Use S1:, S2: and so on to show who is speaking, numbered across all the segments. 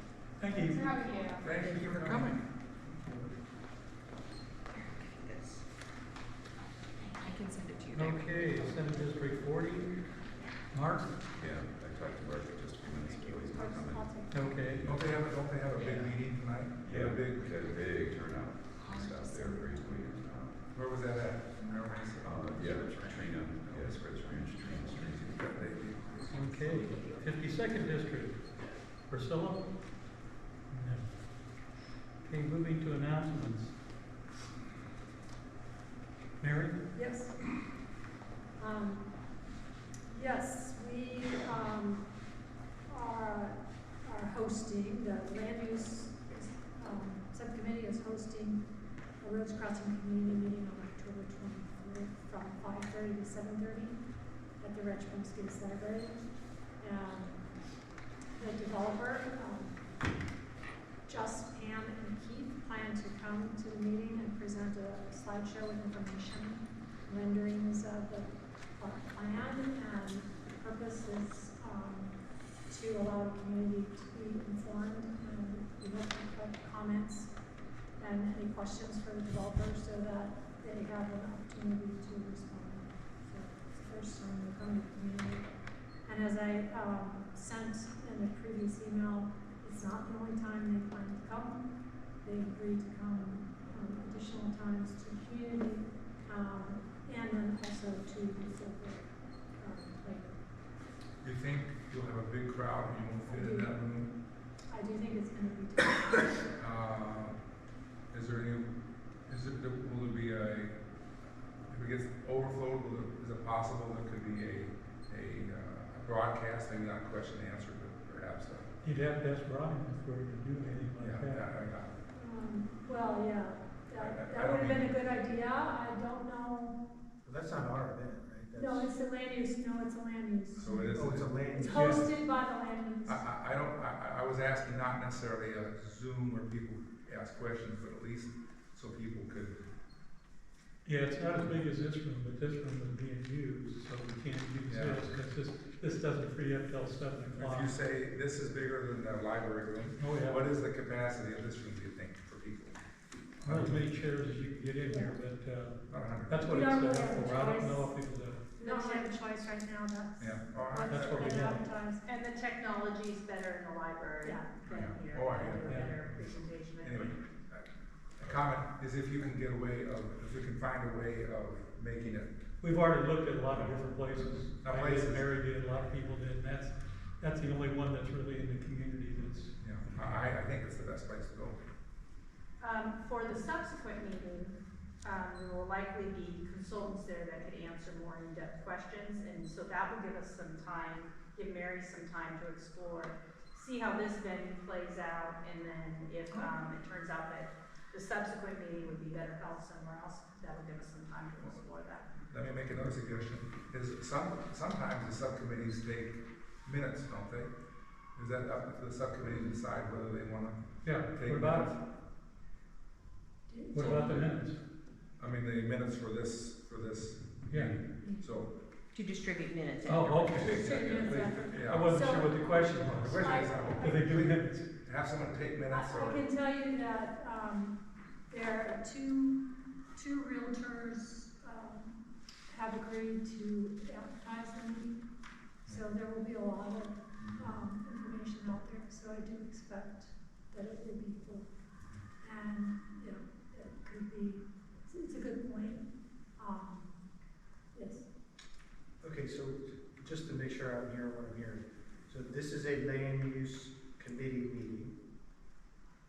S1: you.
S2: Thank you.
S1: Thank you for coming.
S3: I can send it to you.
S4: Okay, Senate District forty, Mark,
S5: Yeah, I talked to Mark just a few minutes ago, he's not coming.
S4: okay,
S1: Don't they have, don't they have a big meeting tonight? They
S5: Yeah,
S1: have a
S5: big,
S1: big,
S5: we had a big turnout, just out there, very clear. Uh,
S1: where was that at? Remember when I said-
S5: Um, yeah, Trina, yeah, it's where Trina, Trina Street.
S1: They-
S4: okay. Fifty-second District, Priscilla? No. Okay, moving to announcements. Mary?
S3: Yes. Um, yes, we, um, are, are hosting, the land use, um, subcommittee is hosting a Roads Crossing Community Meeting on October twenty-fourth from five thirty to seven thirty at the Richmond City Library. Um, the developer, um, Just, Pam, and Keith plan to come to the meeting and present a slideshow with information renderings of the uh, plan, and the purpose is um, to allow the community to be informed, and we look for comments and any questions for the developers, so that they have an opportunity to respond. So it's the first time we've come to the community. And as I um, sent in the previous email, it's not the only time they plan to come. They agreed to come um, additional times to the community, um, and then also to the silver, um, later.
S1: You think you'll have a big crowd and you won't fit in that room?
S3: I do think it's gonna be difficult.
S1: Uh, is there any, is it, will there be a, if it gets overflowed, will there, is it possible there could be a, a uh, broadcast, maybe not question and answer, but perhaps a
S4: You'd have to ask Brian if we're gonna do anything
S1: Yeah,
S4: like
S1: yeah,
S4: that.
S1: yeah, yeah.
S3: Um, Well, yeah, that,
S1: I- I- I
S3: that would have
S1: don't
S3: been a good idea, I don't know,
S6: That's not our event, right?
S3: no,
S6: That's-
S3: it's the land use, no, it's the land use.
S1: So it is,
S6: Oh, it's a
S3: It's
S6: land. Uh,
S3: hosted by the land use.
S1: I, I, I don't, I, I- I was asking not necessarily a Zoom where people ask questions, but at least so people could,
S4: Yeah, it's not as big as this room, but this room is being used, so we can't use
S1: Yeah.
S4: this, because this, this doesn't free up till seven
S1: if
S4: o'clock.
S1: you say, this is bigger than the library room,
S4: Oh, yeah.
S1: what is the capacity of this room, do you think, for people?
S4: Not as many chairs as you can get in here, but, uh,
S1: Not a hundred?
S4: that's what
S3: We
S4: it's
S3: don't
S4: set
S3: really have
S4: up
S3: a
S4: for, I don't
S3: choice.
S4: know if it was a,
S3: We don't have a choice right now, that's.
S1: Yeah. All right.
S4: That's what we
S3: been
S4: have.
S3: advertised.
S2: And the technology is better in the library
S3: Yeah.
S2: than
S1: Yeah.
S2: here.
S1: Oh, I hear
S2: There's a
S4: that.
S2: Better presentation. I
S1: Anyway,
S2: think.
S1: a comment is if you can get away of, if we can find a way of making it,
S4: we've already looked at a lot of different places. I
S1: Not
S4: did,
S1: places.
S4: Mary did, a lot of people did, and that's, that's the only one that's really in the community that's,
S1: you know, I, I think it's the best place to go.
S2: Um, for the subsequent meeting, um, there will likely be consultants there that could answer more in-depth questions, and so that will give us some time, give Mary some time to explore, see how this venue plays out, and then if, um, it turns out that the subsequent meeting would be better held somewhere else, that will give us some time to explore that.
S1: Let me make another suggestion, is some, sometimes the subcommittees take minutes, don't they? Is that up to the subcommittee to decide whether they wanna
S4: yeah, what
S1: take
S4: about,
S1: minutes?
S4: what about the minutes?
S1: I mean, the minutes for this, for this,
S4: Yeah,
S1: so.
S7: To distribute minutes.
S4: oh, okay, I
S1: Yeah.
S4: wasn't sure what the question
S1: The
S4: was,
S1: question is,
S4: do they do minutes?
S1: have someone take minutes
S3: I- I
S1: or,
S3: can tell you that, um, there are two, two realtors, um, have agreed to advertise the meeting. So there will be a lot of, um, information out there, so I do expect that it will be full. And, you know, it could be, it's, it's a good point, um, yes.
S6: Okay, so just to make sure I'm hearing what I'm hearing. So this is a land use committee meeting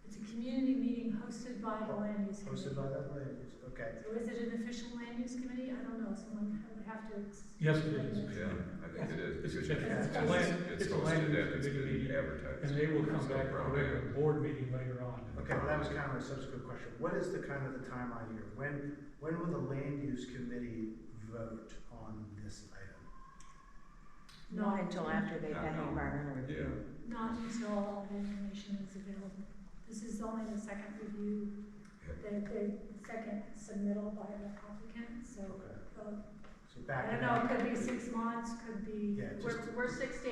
S3: It's a community meeting hosted by the land use committee.
S6: hosted by that land use, okay.
S3: So is it an official land use committee? I don't know, someone would have to. ex-
S4: Yes, it is.
S5: Yeah, I think it
S4: It's
S5: is,
S4: a- it's
S3: a
S5: because it's-
S4: land-
S5: it's
S4: it's a land
S5: hosted and
S4: use
S5: it's
S4: committee
S5: been
S4: meeting,
S5: advertised.
S4: and they will come
S5: There's no
S4: back for a
S5: brown
S4: regular
S5: bag.
S4: board meeting later on.
S6: Okay, well, that was kind of a subsequent question. What is the kind of the timeline here? When, when will the land use committee vote on this item?
S7: Not until after they've had
S5: No, no.
S7: environmental review.
S3: Not until all the information is available. This is only the second review, the, the second submittal by the applicant, so.
S6: Okay,
S3: uh,
S6: so
S3: I
S6: back.
S3: don't know, it could be six months, could be.
S6: Yeah, just.
S2: We're, we're six to